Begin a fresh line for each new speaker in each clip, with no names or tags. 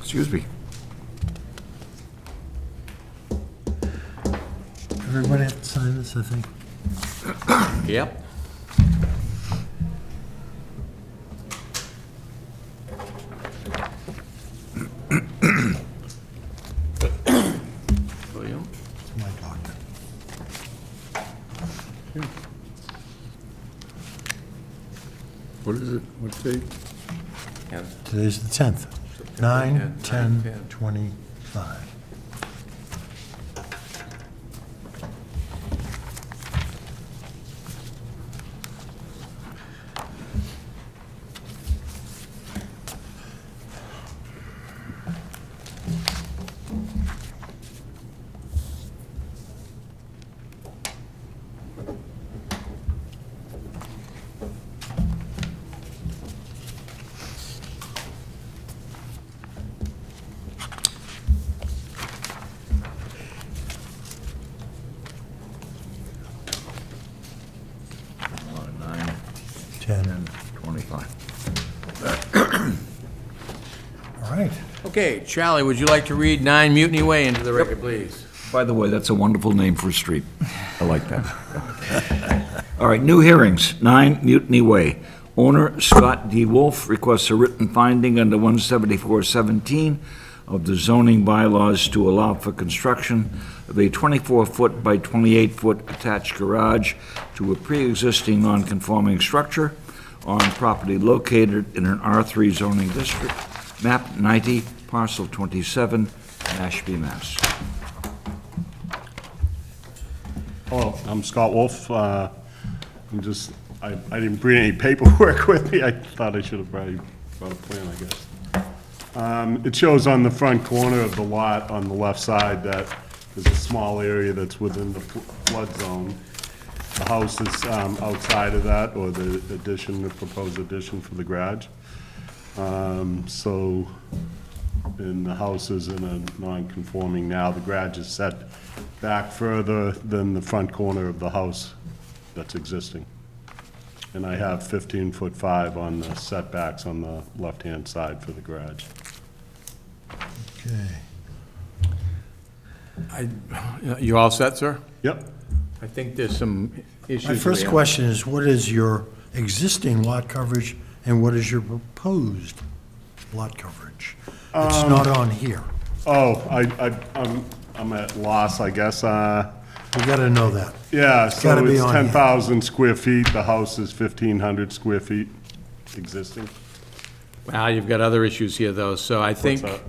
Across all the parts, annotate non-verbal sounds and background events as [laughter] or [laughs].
Excuse me.
Everybody have to sign this, I think.
Yep. William?
It's my document.
What is it? What date?
And
Today's the 10th. 9, 10, 25.
Nine,
10.
twenty-five.
All right.
Okay, Charlie, would you like to read 9 Mutiny Way into the record, please?
By the way, that's a wonderful name for a street. I like that. [laughs] All right, new hearings, 9 Mutiny Way. Owner Scott D. Wolf requests a written finding under 17417 of the zoning bylaws to allow for construction of a 24-foot by 28-foot attached garage to a pre-existing non-conforming structure on property located in an R3 zoning district, map 90, parcel 27, Mashpee, Mass.
Hello, I'm Scott Wolf. Uh, I'm just, I I didn't bring any paperwork [laughs] with me. I thought I should have brought a brought a plan, I guess. Um, It shows on the front corner of the lot on the left side that there's a small area that's within the fl- flood zone. The house is um, outside of that, or the addition, the proposed addition for the garage. Um, So, and the house is in a non-conforming now. The garage is set back further than the front corner of the house that's existing. And I have 15-foot 5 on the setbacks on the left-hand side for the garage.
Okay.
You all set, sir?
Yep,
I think there's some issues.
My first
we have.
question is, what is your existing lot coverage and what is your proposed lot coverage? It's
Um,
not on here.
oh, I, I, I'm, I'm at loss, I guess, uh,
We got to know that. gotta
yeah, so
be
it's
on here.
10,000 square feet, the house is 1,500 square feet existing.
Well, you've got other issues here, though, so I think,
that?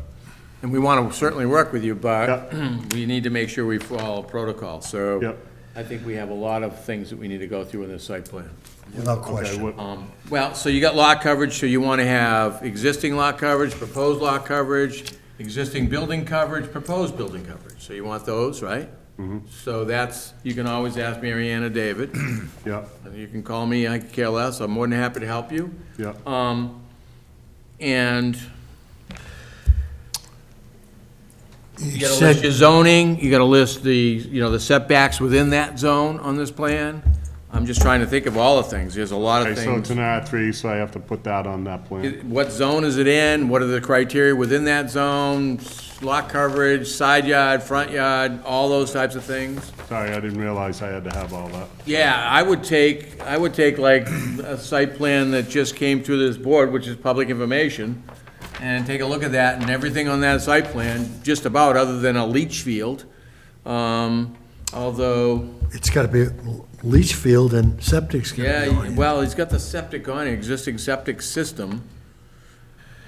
and we want to certainly work with you, but
Yeah.
[clears throat] we need to make sure we follow protocol, so.
Yep.
I think we have a lot of things that we need to go through in this site plan.
Without
Okay,
question.
what-
Um, Well, so you got lot coverage, so you want to have existing lot coverage, proposed lot coverage, existing building coverage, proposed building coverage, so you want those, right?
Mm-hmm.
So that's, you can always ask Mary Ann or
[clears throat]
David,
Yep,
you can call me, I could care less, I'm more than happy to help you.
yep.
Um, and you
You
gotta list
said,
your zoning, you gotta list the, you know, the setbacks within that zone on this plan. I'm just trying to think of all the things, there's a lot
Okay,
of
so it's
things.
an R3, so I have to put that on that plan.
What zone is it in, what are the criteria within that zone, lot coverage, side yard, front yard, all those types of things?
Sorry, I didn't realize I had to have all that.
Yeah, I would take, I would take like a site plan that just came through this board, which is public information, and take a look at that and everything on that site plan, just about, other than a leach field. Um, although,
it's got to be leach field and septic's going to be on
yeah,
here.
well, he's got the septic on, it, existing septic system.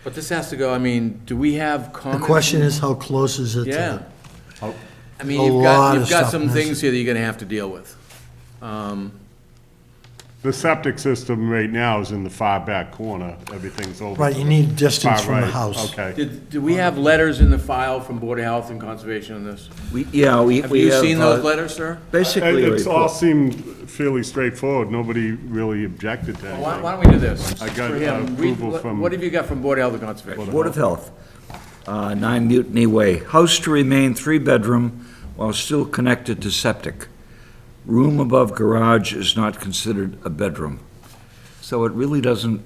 But this has to go, I mean, do we have
The
comments?
question is, how close is it to?
Yeah.
How-
I mean,
A
you've
lot
got,
of
you've got
stuff
some
missing.
things here that you're gonna have to deal with.
The septic system right now is in the far back corner, everything's over.
Right, you need distance
Far
from the
right,
house.
Okay,
Did, do we have letters in the file from Board of Health and Conservation on this?
We, yeah, we,
Have
we
you
have.
seen those
uh,
letters, sir?
Basically,
It- it's all
report.
seemed fairly straightforward, nobody really objected to
Why why
anything.
don't we do this?
I got,
For him,
uh,
read-
approval
what-
from-
What have you got from Board of Health and Conservation?
Board of Health, uh, 9 Mutiny Way, house to remain three-bedroom while still connected to septic. Room above garage is not considered a bedroom. So it really doesn't